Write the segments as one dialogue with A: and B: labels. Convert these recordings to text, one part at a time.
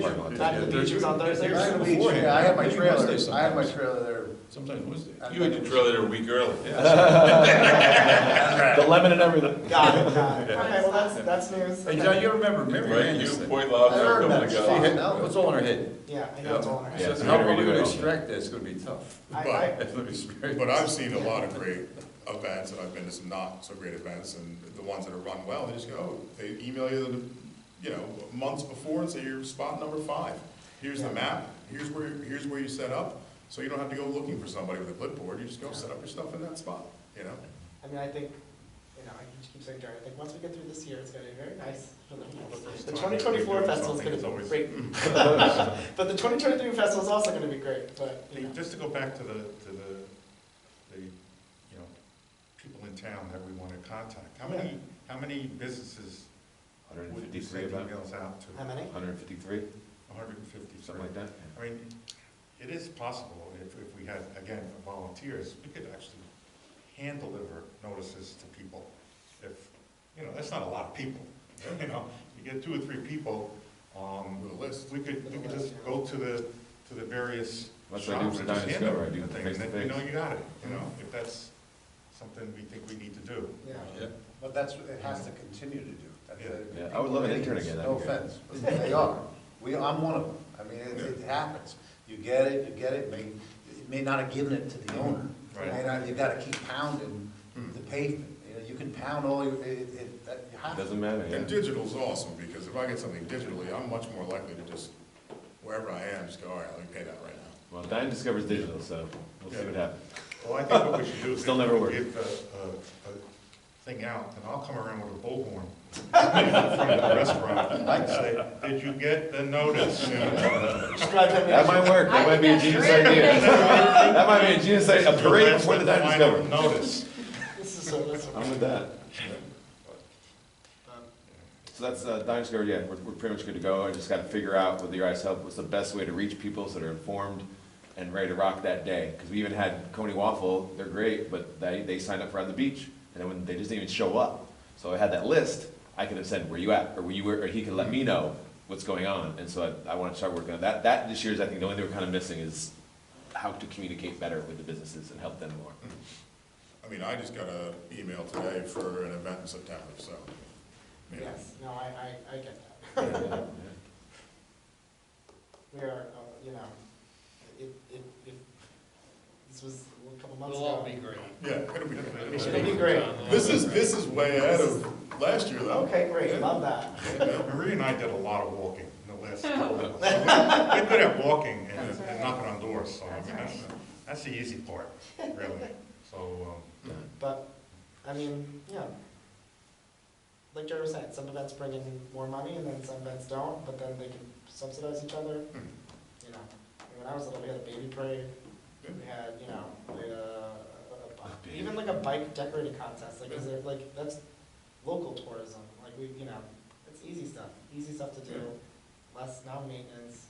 A: Not the beaches on Thursday?
B: I have a beach, yeah, I have my trailer, I have my trailer there.
C: Sometimes Wednesday.
D: You had to drill it a week early.
A: The lemon and everything.
B: Got it, got it.
E: Yeah.
B: Okay, well, that's, that's news.
C: Hey, John, you remember Mary
D: Right, you,
C: Anderson?
D: Point
B: I
D: Love,
B: heard
D: everyone
B: that,
D: got.
B: she
D: it.
B: hit,
C: What's all in her head?
B: yeah, I know it's all in her head.
C: So How are we gonna extract that? It's gonna be tough.
B: I, I,
C: It's gonna be scary.
F: uh,
E: But I've seen a lot of great events, and I've been to some not so great events, and the ones that are run well, they just go, oh, they email you, the you know, months before and say, you're spot number five. Here's the
B: Yeah.
E: map, here's where, here's where you set up, so you don't have to go looking for somebody with a clipboard, you just go set up your stuff in that spot, you know?
B: I mean, I think, you know, I just keep saying, Jerry, I think once we get through this year, it's gonna be very nice for the, the twenty twenty-four festival is gonna be great. But the twenty twenty-three festival is also gonna be great, but, you
E: Hey,
B: know,
E: Just to go back to the, to the, the, you know, people in town that we want to contact, how many, how many businesses would you
G: 153
E: send
G: about,
E: emails out to?
B: how many?
G: 153,
E: hundred and fifty,
G: something like that.
E: I mean, it is possible, if, if we had, again, volunteers, we could actually hand deliver notices to people. If, you know, that's not a lot of people, you know, you get two or three people, um. With a list. We could, we could just go to the, to the various
G: That's
E: shops
G: what I do for
E: and just hand
G: Dynascover, I
E: them
G: do
E: the thing, and then, you
G: face-to-face.
E: know,
G: Mm-hmm.
E: you got it, you know, if that's something we think we need to do.
B: Yeah.
D: Yeah.
F: But that's, what it has to continue to do. That's it.
G: Yeah, I would love an intern again, that'd
F: No
G: be great.
F: offense, but they are. We, I'm one of them. I mean, it, it happens. You get it, you get it, may, you may not have given it to the owner.
E: Right.
F: And I- you gotta keep pounding the pavement. You know, you can pound all your, it, it, that- you have to.
G: Doesn't matter,
H: And
G: yeah.
H: digital's awesome, because if I get something digitally, I'm much more likely to just, wherever I am, just go, all right, let me pay that right now.
G: Well, Dine discovers digital, so we'll see what happens.
E: Well, I think what we should do is.
G: Still never worked.
E: Give a, a, a thing out, and I'll come around with a bullhorn from the restaurant, and say, did you get the notice? You know,
B: Just drive them
G: That
B: in.
G: might work, that
H: I
G: might
H: think
G: be a
H: that's
G: genius
H: great.
G: idea. That might be a genius idea, a parade before the Dine
E: Final
G: discovers.
E: Notice.
B: This is so, this is.
G: I'm with that.
B: Um,
G: So that's, uh, Dine Discover, yeah, we're, we're pretty much good to go. I just gotta figure out with your guys' help, what's the best way to reach people so they're informed and ready to rock that day. Because we even had Coney Waffle, they're great, but they, they signed up for on the beach, and then when, they just didn't even show up. So I had that list, I could have said, where you at, or where you were, or he could let me know what's going on. And so I, I wanna start working on that. That, this year's, I think, the only thing we're kinda missing is how to communicate better with the businesses and help them more.
H: I mean, I just got an email today for an event in September, so. you know.
B: Yes, no, I, I, I get that. We are, uh, you know, it, it, it, this was a couple months
A: It'll all
B: ago.
A: be great.
H: Yeah, it'll be,
B: It'll be great.
H: this is, this is way ahead of last year, though.
B: Okay, great, love that.
E: Marie and I did a lot of walking in the last couple of months. We're good at walking and
H: That's
E: and knocking on doors, so I mean,
H: That's
E: that's, that's the easy part, really. So, um,
B: But, I mean, yeah. Like Jerry was saying, some events bring in more money and then some events don't, but then they can subsidize each other. You know, I mean, when I was little, we had a baby parade, we had, you know, we had a, a bi- even like a bike decorating contest, like, is there, like, that's local tourism, like, we, you know, it's easy stuff, easy stuff to do, less non-maintenance,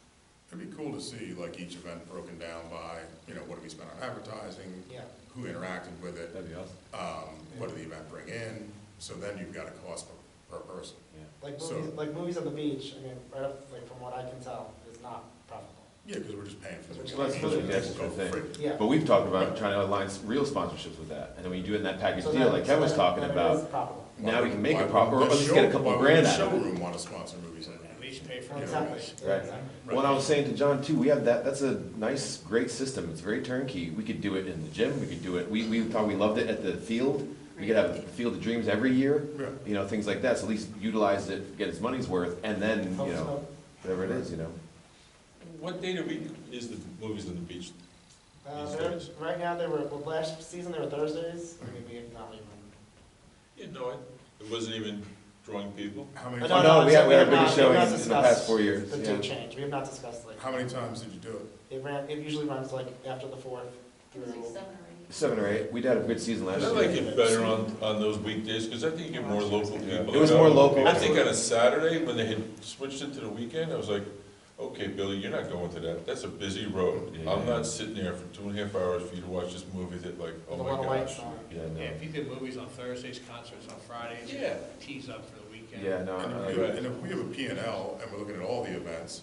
H: It'd be cool to see like each event broken down by, you know, what did we spend on advertising,
B: yeah.
H: who interacted with it,
G: That'd be awesome,
H: um, what did the event bring in? So then you've got a cost per, per person.
G: yeah.
B: Like
H: So-
B: movies, like movies on the beach, I mean, right up, like, from what I can tell, is not profitable.
H: Yeah, because we're just paying for the.
G: Well, that's really the extra
H: Go for
G: thing.
H: free.
B: Yeah.
G: But we've talked about trying to align s- real sponsorships with that, and then when you do it in that package
B: So
G: deal,
B: that-
G: like
B: so
G: Kevin was
B: that-
G: talking
B: that it
G: about,
B: is profitable.
G: now we can make
H: Why
G: a
H: would
G: profit, or
H: the
G: at least get a
H: show-
G: couple
H: why would
G: grand
H: the
G: out of it.
H: Showroom wanna sponsor movies like that.
A: At least pay for
B: Well,
A: it.
B: Exactly, yeah,
G: Right.
B: exactly.
G: Well, and I was saying to John too, we have that, that's a nice, great system, it's very turnkey, we could do it in the gym, we could do it, we, we thought we loved it at the field, we could have the Field of Dreams every year,
H: Yeah.
G: you know, things like that, so at least utilize it, get its money's worth, and then, you
B: Helps
G: know,
B: out.
G: whatever it is, you know.
D: What date of week is the movies on the beach?
B: Uh, they're- Right now, they were, well, last season, they were Thursdays, I mean, we not even.
D: You know, it, it wasn't even drawing people.
H: How
B: Oh,
H: many,
B: no,
G: Oh,
H: times-
B: no,
G: no, we had, we had
B: we
G: our
B: have
G: biggest
B: not-
G: show
B: we
G: in
B: have not
G: in the past four
B: discussed
G: years,
B: The
G: yeah.
B: date change, we have not discussed, like,
H: how many times did you do it?
B: it ran, it usually runs like after the fourth
H: It
B: through.
H: was like
G: Seven or eight, we'd had a good season
D: I
G: last year.
D: like it better on, on those weekdays, because I think you get more local people.
G: It was more local.
D: I think on a Saturday, when they had switched it to the weekend, I was like, okay, Billy, you're not going to that. That's a busy road. I'm not sitting there for two and a half hours for you to watch this movie that like,
B: The
D: oh my
B: one white
D: gosh.
B: song.
G: Yeah, no.
A: Yeah, if you did movies on Thursdays, concerts on Fridays,
D: Yeah.
A: tease up for the weekend.
G: Yeah, no,
H: And
G: I-
H: if- And if we have a P and L and we're looking at all the events,